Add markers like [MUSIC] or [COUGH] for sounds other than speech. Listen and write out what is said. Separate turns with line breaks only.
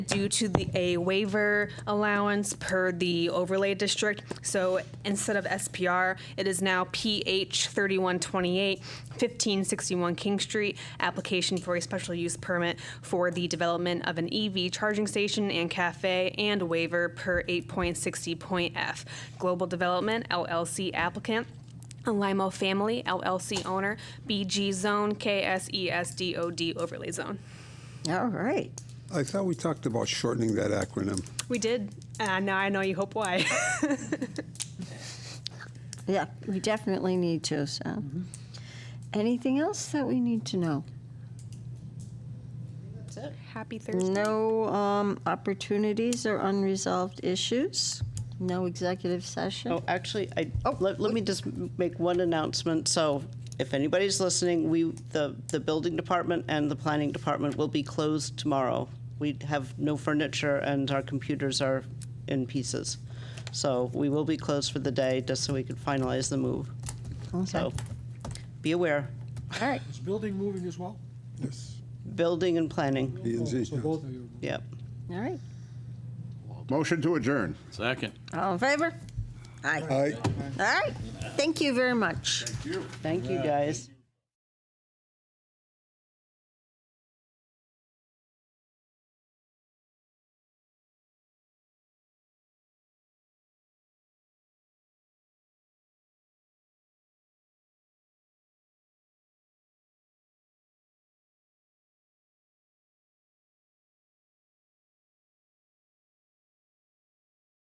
due to the, a waiver allowance per the overlay district. So instead of SPR, it is now PH 3128, 1561 King Street, application for a special use permit for the development of an EV charging station and cafe and waiver per 8.60.f. Global Development LLC applicant, Alimo Family LLC owner, BG Zone E KSESDOD overlay zone.
All right.
I thought we talked about shortening that acronym.
We did. Uh, now I know you hope why. [LAUGHS]
Yeah, we definitely need to, so. Anything else that we need to know?
Happy Thursday.
No um, opportunities or unresolved issues? No executive session?
Oh, actually, I, let, let me just make one announcement. So if anybody's listening, we, the, the building department and the planning department will be closed tomorrow. We have no furniture and our computers are in pieces. So we will be closed for the day just so we could finalize the move. So be aware,
All right,
Is building moving as well? Oh,
Yes.
building and planning,
B and Z.
So both of you.
yep.
all right.
Motion to adjourn.
Second.
All in favor? Aye.
Aye.
All right. Thank you very much.
Thank you, guys.